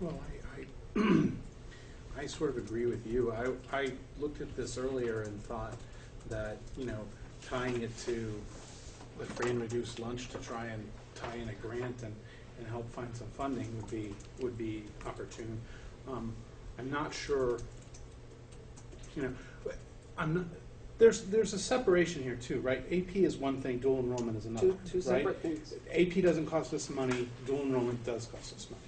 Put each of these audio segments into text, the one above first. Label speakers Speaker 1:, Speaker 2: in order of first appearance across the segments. Speaker 1: Well, I, I, I sort of agree with you. I, I looked at this earlier and thought that, you know, tying it to the free and reduced lunch to try and tie in a grant and, and help find some funding would be, would be opportune. Um, I'm not sure, you know, but I'm not, there's, there's a separation here too, right? AP is one thing, dual enrollment is another,
Speaker 2: Two, two
Speaker 1: right?
Speaker 2: separate things.
Speaker 1: AP doesn't cost us money, dual enrollment does cost us money.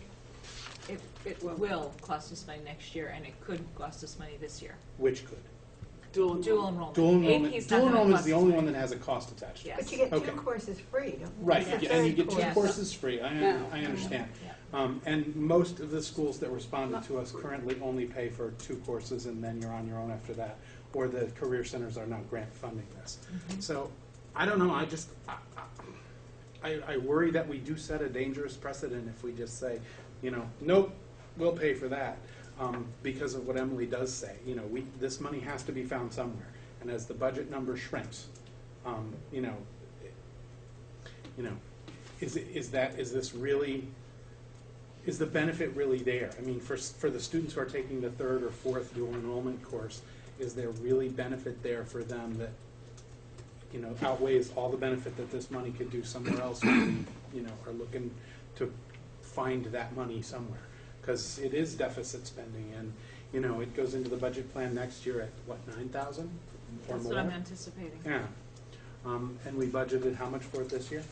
Speaker 3: It, it will cost us money next year, and it could cost us money this year.
Speaker 1: Which could.
Speaker 2: Dual
Speaker 3: Dual
Speaker 2: enrollment.
Speaker 3: enrollment.
Speaker 1: Dual
Speaker 3: AP
Speaker 1: enrollment,
Speaker 3: is not
Speaker 1: dual
Speaker 3: gonna
Speaker 1: enrollment is
Speaker 3: cost
Speaker 1: the
Speaker 3: us
Speaker 1: only
Speaker 3: money.
Speaker 1: one that has a cost attached.
Speaker 3: Yes.
Speaker 4: But you get
Speaker 1: Okay.
Speaker 4: two courses free, don't you?
Speaker 1: Right,
Speaker 4: It's the
Speaker 1: yeah, and you
Speaker 4: third
Speaker 1: get two
Speaker 4: course.
Speaker 1: courses free, I,
Speaker 2: Yeah.
Speaker 1: I understand.
Speaker 3: Yeah.
Speaker 1: Um, and most of the schools that responded to us currently only pay for two courses and then you're on your own after that. Or the career centers are not grant funding this.
Speaker 3: Mm-hmm.
Speaker 1: So, I don't know, I just, I, I- I, I worry that we do set a dangerous precedent if we just say, you know, nope, we'll pay for that. Um, because of what Emily does say, you know, we, this money has to be found somewhere. And as the budget number shrinks, um, you know, you know, is, it- is that, is this really, is the benefit really there? I mean, for, s- for the students who are taking the third or fourth dual enrollment course, is there really benefit there for them that, you know, outweighs all the benefit that this money could do somewhere else when we, you know, are looking to find that money somewhere? Because it is deficit spending and, you know, it goes into the budget plan next year at, what, nine thousand or more?
Speaker 3: That's what I'm anticipating.
Speaker 1: Yeah. Um, and we budgeted how much for it this year?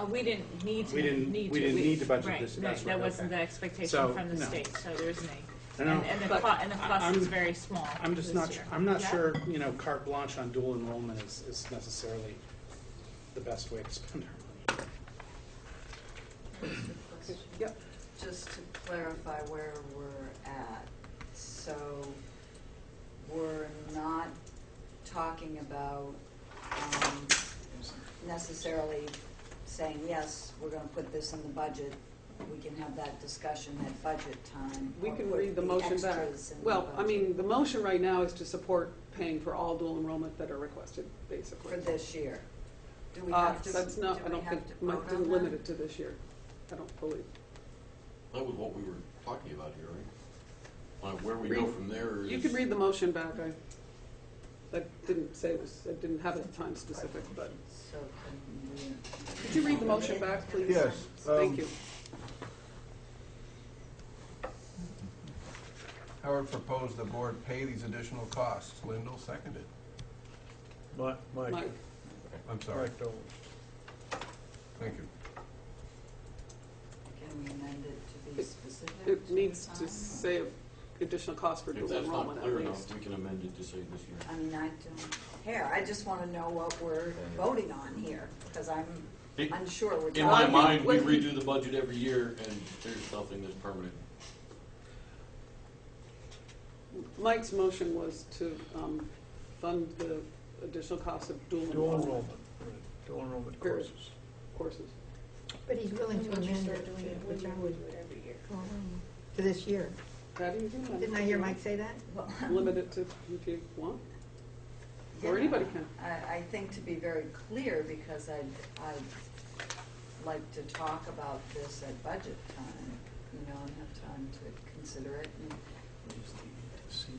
Speaker 3: Uh, we didn't need to.
Speaker 1: We didn't-
Speaker 3: need
Speaker 1: we
Speaker 3: to-
Speaker 1: didn't need to budget
Speaker 3: right,
Speaker 1: this,
Speaker 3: right,
Speaker 1: that's right,
Speaker 3: That wasn't
Speaker 1: okay.
Speaker 3: the
Speaker 1: So,
Speaker 3: expectation from the
Speaker 1: no.
Speaker 3: state, so there isn't any.
Speaker 1: I know.
Speaker 3: And, and the
Speaker 2: But
Speaker 3: cost, and the
Speaker 1: I-
Speaker 3: cost is
Speaker 1: I'm-
Speaker 3: very small
Speaker 1: I'm just
Speaker 3: this
Speaker 1: not,
Speaker 3: year.
Speaker 1: I'm not
Speaker 3: Yeah?
Speaker 1: sure, you know, carte blanche on dual enrollment is, is necessarily the best way to spend our money.
Speaker 2: Yep.
Speaker 5: Just to clarify where we're at, so we're not talking about um, necessarily saying, yes, we're gonna put this in the budget. We can have that discussion at budget time.
Speaker 2: We
Speaker 5: or
Speaker 2: can
Speaker 5: put
Speaker 2: read the motion back.
Speaker 5: extras in the
Speaker 2: Well, I
Speaker 5: budget
Speaker 2: mean, the motion right now is to support paying for all dual enrollment that are requested, basically.
Speaker 5: For this year. Do we
Speaker 2: Uh,
Speaker 5: have to, do we have
Speaker 2: That's
Speaker 5: to
Speaker 2: not, I don't think, Mike
Speaker 5: vote
Speaker 2: didn't
Speaker 5: on
Speaker 2: limit
Speaker 5: that?
Speaker 2: it to this year, I don't believe.
Speaker 6: That was what we were talking about here, right? On where we go from there is.
Speaker 2: You could read the motion back, I, I didn't say it was, I didn't have it time specific, but,
Speaker 5: So can we-
Speaker 2: could you read the motion back, please?
Speaker 7: Yes, um,
Speaker 2: Thank you.
Speaker 7: Howard proposed the board pay these additional costs. Lindell seconded.
Speaker 8: Mi- Mike,
Speaker 2: Mike,
Speaker 7: I'm sorry.
Speaker 8: Mike Dolan.
Speaker 7: Thank you.
Speaker 5: Can we amend it to be
Speaker 2: It-
Speaker 5: specific?
Speaker 2: it needs
Speaker 5: the
Speaker 2: to
Speaker 5: time?
Speaker 2: say additional cost for
Speaker 6: If
Speaker 2: dual
Speaker 6: that's not
Speaker 2: enrollment at
Speaker 6: clear
Speaker 2: least.
Speaker 6: enough, we can amend it to say this year.
Speaker 5: I mean, I don't care, I just want to know what we're voting on here, because I'm
Speaker 6: It-
Speaker 5: unsure we're talking.
Speaker 6: In my
Speaker 2: think
Speaker 6: mind, we
Speaker 2: when he-
Speaker 6: redo the budget every year and there's nothing that's permanent.
Speaker 2: Mike's motion was to um, fund the additional cost of dual
Speaker 8: Dual
Speaker 2: enrollment
Speaker 8: enrollment, right, dual enrollment
Speaker 2: Period.
Speaker 8: courses.
Speaker 2: courses.
Speaker 4: But he's willing to
Speaker 9: Would you
Speaker 4: amend
Speaker 9: start
Speaker 4: it
Speaker 9: doing it,
Speaker 4: to-
Speaker 9: would you
Speaker 4: which I
Speaker 9: do
Speaker 4: would,
Speaker 9: it every year?
Speaker 4: um, to this year.
Speaker 2: How do you do that?
Speaker 4: Didn't I hear Mike say that?
Speaker 5: Well,
Speaker 2: Limit it to if you want, or
Speaker 5: yeah.
Speaker 2: anybody can.
Speaker 5: I, I think to be very clear, because I'd, I'd like to talk about this at budget time, you know, and have time to consider it, and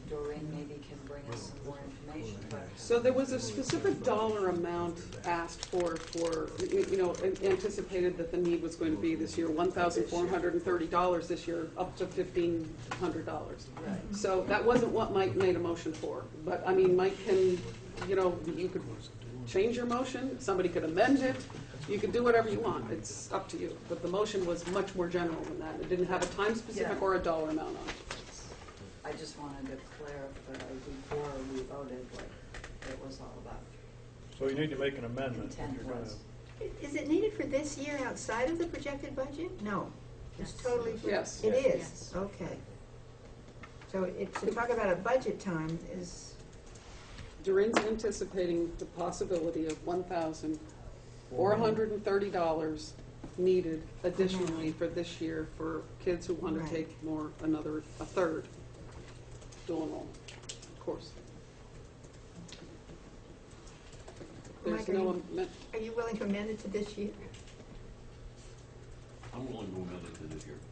Speaker 5: Doreen maybe can bring us some more information, but.
Speaker 2: So there was a specific dollar amount asked for, for, you you know, an- anticipated that the need was going to be this year, one thousand four hundred and thirty dollars this year, up to fifteen hundred dollars.
Speaker 5: Right.
Speaker 2: So that wasn't what Mike made a motion for, but I mean, Mike can, you know, you could change your motion, somebody could amend it, you could do whatever you want, it's up to you. But the motion was much more general than that, it didn't have a time specific
Speaker 5: Yeah.
Speaker 2: or a dollar amount on it.
Speaker 5: I just wanted to clarify before we voted what it was all about.
Speaker 8: So you need to make an amendment if
Speaker 5: Intent
Speaker 8: you're gonna,
Speaker 5: was.
Speaker 4: I- Is it needed for this year outside of the projected budget? No, it's
Speaker 5: Yes.
Speaker 4: totally.
Speaker 2: Yes.
Speaker 4: It
Speaker 3: Yes.
Speaker 4: is, okay. So it, to talk about a budget time is,
Speaker 2: Durin's anticipating the possibility of one thousand four hundred and thirty dollars needed additionally for this year for kids who want
Speaker 4: Right.
Speaker 2: to take more, another, a third dual enrollment course. There's
Speaker 4: Mike, are
Speaker 2: no,
Speaker 4: you-
Speaker 2: amen-
Speaker 4: are you willing to amend it to this year?
Speaker 6: I'm willing to amend it to this year.